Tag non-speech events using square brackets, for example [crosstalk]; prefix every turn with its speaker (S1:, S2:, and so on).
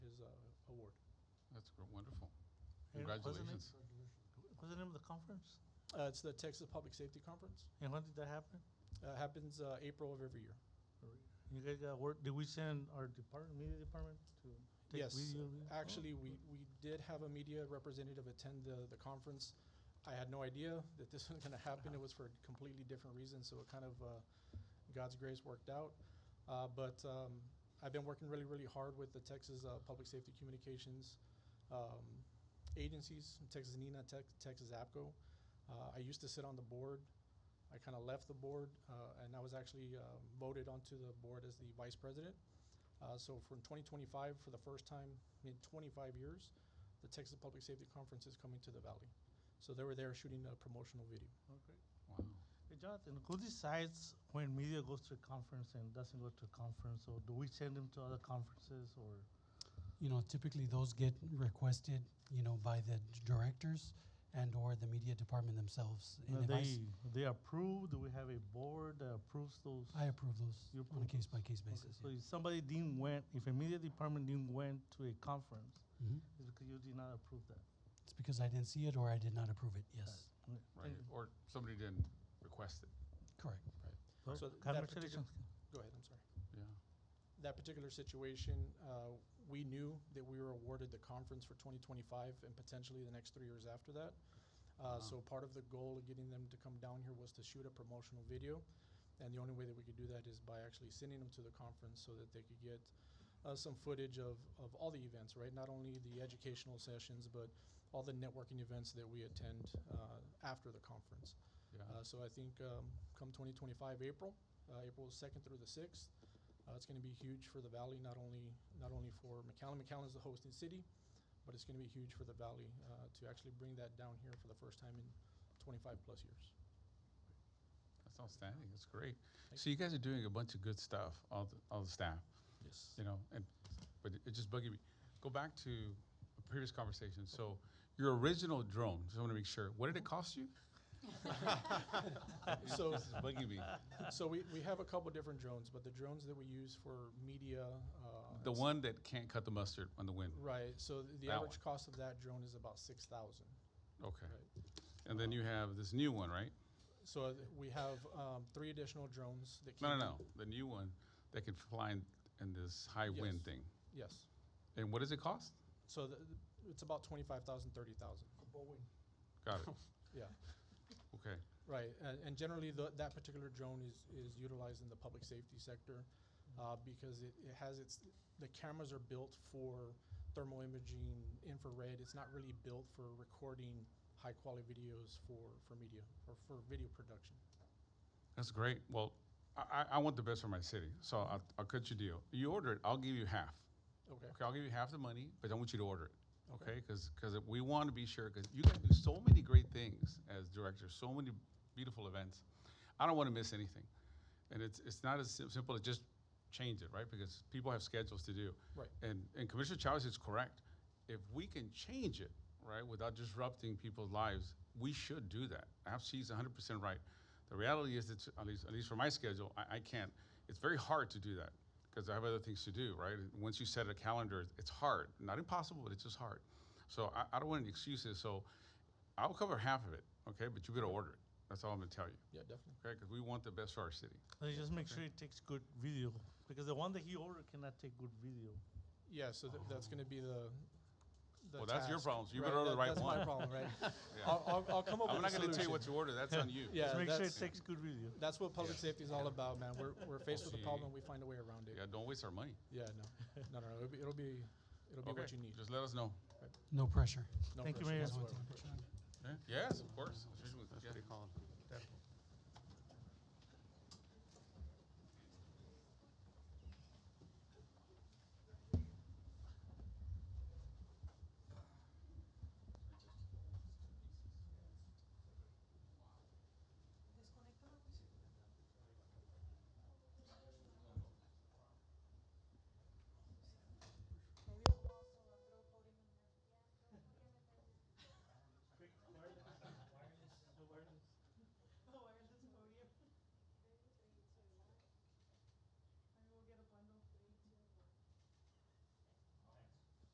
S1: That's gr- wonderful.
S2: And wasn't it-
S1: Congratulations.
S2: What's the name of the conference?
S3: Uh, it's the Texas Public Safety Conference.
S2: And when did that happen?
S3: Uh, happens uh, April of every year.
S2: You guys got work, did we send our department, media department to take
S3: Yes, uh,
S2: video? Oh.
S3: Actually, we, we did have a media representative attend the, the conference. I had no idea that this [laughs] was gonna happen. It was for a completely different reasons, so it kind of, uh, God's grace worked out. Uh, but, um, I've been working really, really hard with the Texas, uh, Public Safety Communications, um, agencies, Texas NENA, Tex- Texas APCO. Uh, I used to sit on the board. I kinda left the board, uh, and I was actually, uh, voted onto the board as the vice president. Uh, so from 2025, for the first time in 25 years, the Texas Public Safety Conference is coming to the Valley. So they were there shooting a promotional video.
S1: Wow.
S2: Hey, Jonathan, who decides when media goes to a conference and doesn't go to a conference? Or do we send them to other conferences or?
S4: You know, typically those get requested, you know, by the d- directors and or the media department themselves.
S2: No,
S4: And if I, s-
S2: they, they approve, do we have a board that approves those?
S4: I approve those
S2: You
S4: on a
S2: approve
S4: case by case
S2: Okay,
S4: basis.
S2: So if somebody didn't went, if a media department didn't went to a conference,
S4: yeah. Mhm.
S2: it's because you did not approve that.
S4: It's because I didn't see it or I did not approve it. Yes,
S1: Right. Or somebody didn't request it.
S4: correct.
S2: So
S3: So that
S2: Congratulations.
S3: Go ahead, I'm sorry.
S1: Yeah.
S3: That particular situation, uh, we knew that we were awarded the conference for 2025 and potentially the next three years after that. Uh,
S1: Wow.
S3: so part of the goal of getting them to come down here was to shoot a promotional video. And the only way that we could do that is by actually sending them to the conference so that they could get uh, some footage of, of all the events, right? Not only the educational sessions, but all the networking events that we attend uh, after the conference.
S1: Yeah.
S3: Uh, so I think um, come 2025 April, uh, April 2nd through the 6th, uh, it's going to be huge for the valley. Not only not only for McAllen, McAllen is the hosting city, but it's going to be huge for the valley uh, to actually bring that down here for the first time in 25 plus years.
S1: That's outstanding. That's great.
S3: Thank
S1: So you guys are doing a bunch of good stuff, all the, all the staff,
S3: Yes.
S1: you know, and, but it- it just bugging me. Go back to a previous conversation. So your original drone, just want to make sure, what did it cost you? [laughs]
S3: So-
S1: This is bugging me.
S3: [laughs] so we, we have a couple different drones, but the drones that we use for media. Uh,
S1: The
S3: and s-
S1: one that can't cut the mustard on the wind.
S3: Right. So th- the
S1: That
S3: average cost of that drone is about 6000
S1: Okay.
S3: Right.
S1: And then you have this new one, right?
S3: So th- we have um, three additional drones that
S1: No,
S3: came
S1: no,
S3: in-
S1: no. The new one that can fly in, in this high wind
S3: Yes.
S1: thing.
S3: Yes.
S1: And what does it cost?
S3: So th- th- it's about 25,000, 30,000.
S1: Got it.
S3: [laughs] Yeah,
S1: Okay.
S3: right. And, and generally, tho- that particular drone is, is utilized in the public safety sector uh, because it, it has its, the cameras are built for thermal imaging, infrared. It's not really built for recording high quality videos for, for media or for video production.
S1: That's great. Well, I, I- I want the best for my city, so I'll, I'll cut you a deal. You order it, I'll give you half.
S3: Okay.
S1: Okay, I'll give you half the money, but I want you to order it.
S3: Okay.
S1: Okay, because we want to be sure because you guys do so many great things as directors, so many beautiful events. I don't want to miss anything, and it's it's not as sim- simple as just change it, right? Because people have schedules to do.
S3: Right.
S1: And and Commissioner Chavez is correct. If we can change it, right, without disrupting people's lives, we should do that. I have- She's 100 percent right. The reality is that at least at least for my schedule, I, I can't. It's very hard to do that because I have other things to do, right? And Once you set a calendar, it's hard. Not impossible, but it's just hard. So I, I don't want any excuses. So I'll cover half of it, okay? But you better order it. That's all I'm gonna tell you,
S3: Yeah, definitely.
S1: okay? Because we want the best for our city.
S2: So you just make sure it takes good video because the one that he ordered cannot take good video.
S3: Yeah, so th- that's going to be the. the
S1: Well, that's your
S3: task,
S1: problem, so you
S3: right?
S1: better order the
S3: That-
S1: right
S3: that's
S1: one.
S3: my problem,
S1: [laughs]
S3: right?
S1: Yeah.
S3: I'll, I'll, I'll come up
S1: I'm
S3: with a
S1: not gonna tell you
S3: solution.
S1: what to order. That's on
S3: [laughs]
S1: you.
S3: Yeah,
S2: just make sure it
S3: that's-
S2: takes good video.
S3: That's what public safety is all about, man. We're, we're faced with a
S1: See.
S3: problem, we find a way around it.
S1: Yeah, don't waste our money.
S3: Yeah, no, no, no, it'll be, it'll be, it'll be
S1: Okay,
S3: what you need.
S1: Just let us know.
S4: No pressure.
S3: No
S2: Thank you,
S3: pressure
S2: Mayor.
S3: whatsoever.
S1: Yes, of course. Yeah.